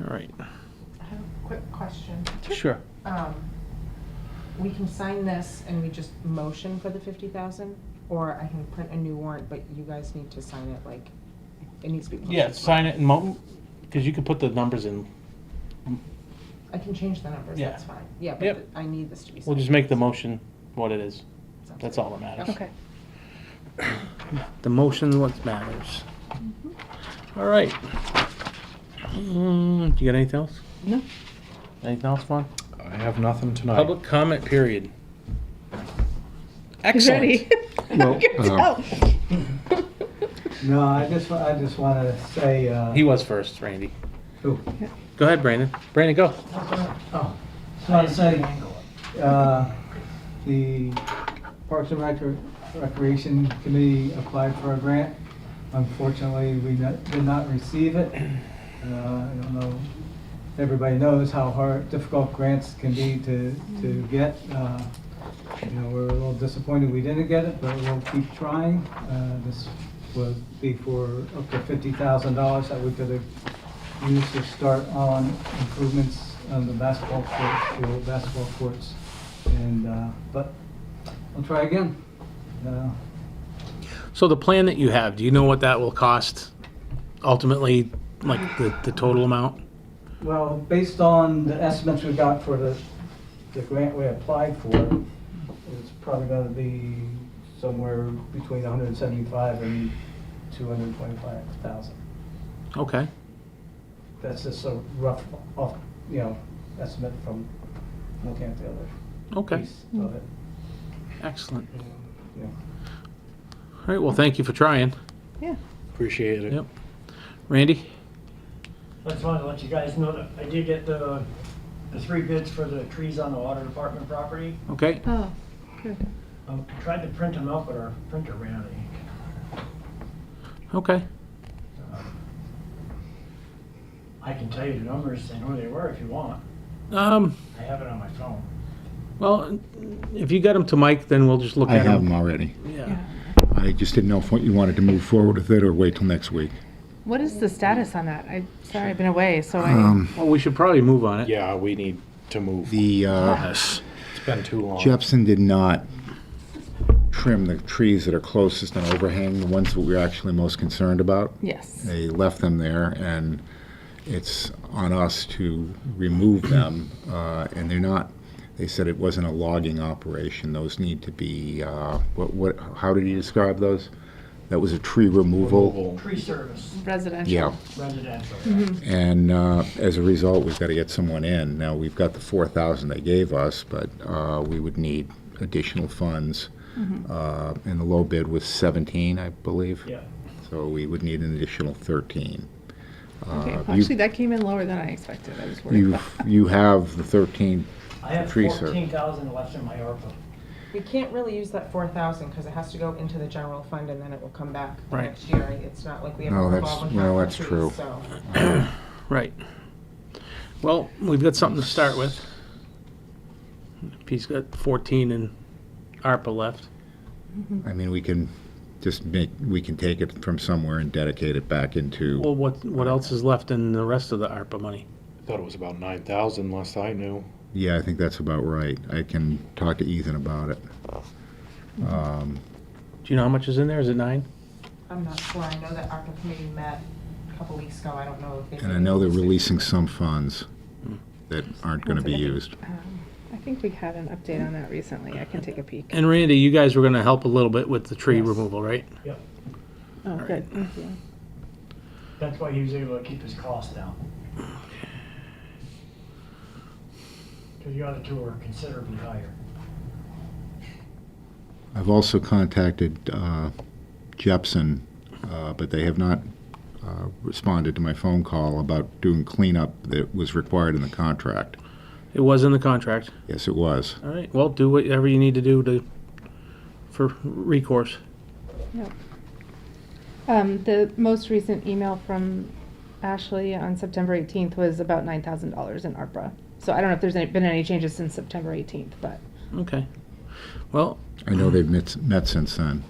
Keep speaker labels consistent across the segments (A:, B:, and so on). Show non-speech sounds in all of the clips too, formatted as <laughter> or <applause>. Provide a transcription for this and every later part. A: All right,
B: I have a quick question.
A: sure.
B: Um, We can sign this and we just motion for the fifty thousand, or I can print a new warrant, but you guys need to sign it like, it needs to be. posted.
A: Yeah, sign it and mo, because you can put the numbers in.
B: I can change the numbers,
A: Yeah.
B: that's fine. Yeah,
A: Yep.
B: but I need this to be signed.
A: We'll just make the motion what it is.
B: Sounds
A: That's
B: good.
A: all that matters.
B: Okay.
A: The motion what matters. All right. Mm, do you got anything else?
C: No.
A: Anything else, Ron?
D: I have nothing tonight.
A: Public comment period.
C: Ready?
A: Excellent.
D: Well,
C: <laughs> Good
D: uh,
C: job.
E: No, I just, wa- I just want to say, uh,
A: He was first, Randy.
E: ooh,
A: Go ahead, Brandon. Brandon, go.
E: oh, just want to say, uh, the Parks and Recre- Recreation Committee applied for a grant. Unfortunately, we not- did not receive it. Uh, I don't know, everybody knows how hard, difficult grants can be to, to get. Uh, You know, we're a little disappointed we didn't get it, but we'll keep trying. Uh, This would be for up to fifty thousand dollars that we could have used to start on improvements on the basketball courts, the old basketball courts. And, uh, but we'll try again. Uh,
A: So the plan that you have, do you know what that will cost ultimately, like the, the total amount?
E: Well, based on the estimates we got for the, the grant we applied for, it's probably gonna be somewhere between hundred and seventy-five and two hundred and twenty-five thousand.
A: Okay.
E: That's just a rough, off, you know, estimate from looking at the other
A: Okay.
E: piece of it.
A: Excellent.
E: Yeah.
A: All right. Well, thank you for trying.
C: Yeah.
D: Appreciate it.
A: Yep. Randy?
F: I just wanted to let you guys know that I did get the, the three bids for the trees on the water department property. Um,
A: Okay.
C: Oh, good.
F: I tried to print them out, but our printer ran out of ink.
A: Okay.
F: Um, I can tell you the numbers and who they were if you want.
A: Um,
F: I have it on my phone.
A: well, if you get them to Mike, then we'll just look
D: I
A: at
D: have them
A: them.
D: already.
A: Yeah.
D: I just didn't know if you wanted to move forward with it or wait till next week.
C: What is the status on that? I, sorry, I've been away, so I,
D: Um,
A: Well, we should probably move on it.
G: Yeah, we need to move.
D: The, uh,
A: Yes.
G: It's been too long.
D: Jepson did not trim the trees that are closest and overhang, the ones that we're actually most concerned about.
C: yes.
D: They left them there, and it's on us to remove them. uh, And they're not, they said it wasn't a logging operation. Those need to be, uh, what, what, how did you describe those? That was a tree removal?
G: Removal.
F: Tree service,
C: Residential.
D: Yeah.
F: residential.
D: And uh, as a result, we've got to get someone in. Now, we've got the 4,000 they gave us, but uh, we would need additional funds.
C: Mm-hmm.
D: Uh, And the low bid was 17, I believe.
F: Yeah.
D: So we would need an additional 13.
C: Okay,
D: Uh,
C: well,
D: you-
C: actually, that came in lower than I expected. I was worried
D: You,
C: about.
D: you have the 13,
F: I have
D: Tree service.
F: fourteen thousand left in my ARPA.
B: We can't really use that four thousand, because it has to go into the general fund and then it will come back
A: Right.
B: next year. It's not like we have a
D: No, that's-
B: revolving
D: no,
B: fund
D: that's
B: for trees,
D: true.
B: so-
A: Right. Well, we've got something to start with. He's got 14 in ARPA left.
C: Mm.
D: I mean, we can just make, we can take it from somewhere and dedicate it back into,
A: Well, what, what else is left in the rest of the ARPA money?
G: Thought it was about nine thousand last I knew.
D: yeah, I think that's about right. I can talk to Ethan about it. Um,
A: Do you know how much is in there? Is it nine?
B: I'm not sure. I know that ARPA committee met a couple weeks ago. I don't know if they.
D: And I know they're releasing some funds that <laughs> aren't going to be used.
C: Um, I think we had an update on that recently. I can take a peek.
A: And Randy, you guys were gonna help a little bit with the tree
F: Yes.
A: removal, right?
F: Yep.
C: Oh, good, thank you.
F: That's why he was able to keep his costs down. Cause the other two are considerably higher.
D: I've also contacted uh, Jepson, uh, but they have not uh, responded to my phone call about doing cleanup that was required in the contract.
A: It was in the contract.
D: Yes, it was.
A: All right, well, do whatever you need to do to, for recourse.
C: Um, the most recent email from Ashley on September eighteenth was about nine thousand dollars in ARPA. So I don't know if there's any- been any changes since September eighteenth, but
A: Okay. Well,
D: I know they've met, met since then.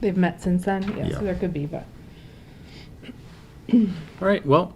C: they've met since then, yeah,
D: Yeah.
C: so there could be, but.
A: all right, well,